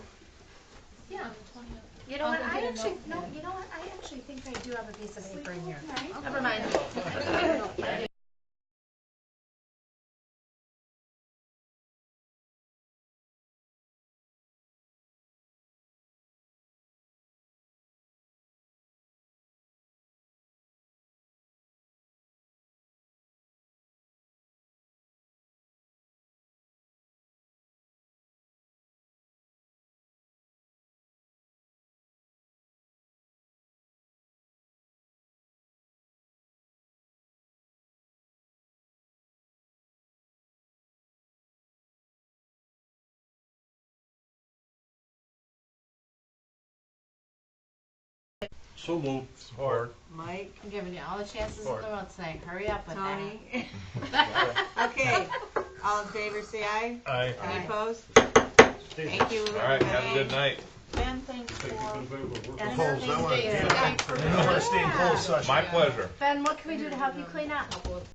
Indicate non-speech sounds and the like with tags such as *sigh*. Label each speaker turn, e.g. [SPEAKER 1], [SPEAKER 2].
[SPEAKER 1] Yeah.
[SPEAKER 2] You know what,
[SPEAKER 1] I'll go
[SPEAKER 2] I
[SPEAKER 1] get a
[SPEAKER 2] actually, no,
[SPEAKER 1] notepad.
[SPEAKER 2] you know what, I actually think I do have a piece of paper in here.
[SPEAKER 1] Right?
[SPEAKER 2] Never mind.
[SPEAKER 3] So moved. Support.
[SPEAKER 4] Mike,
[SPEAKER 1] I'm giving you all the chances in the world tonight. Hurry up with that. *laughs*
[SPEAKER 4] Tony. *laughs* Okay, all in favor, say aye.
[SPEAKER 3] Aye.
[SPEAKER 4] Any opposed? Thank you.
[SPEAKER 3] All right, have a good night.
[SPEAKER 4] Ben, thanks for.
[SPEAKER 2] And
[SPEAKER 5] Close, I
[SPEAKER 2] these
[SPEAKER 5] wanna-
[SPEAKER 2] days,
[SPEAKER 5] yeah.
[SPEAKER 2] like,
[SPEAKER 5] I want to stay in closed session.
[SPEAKER 3] My pleasure.
[SPEAKER 2] Ben, what can we do to help you clean up?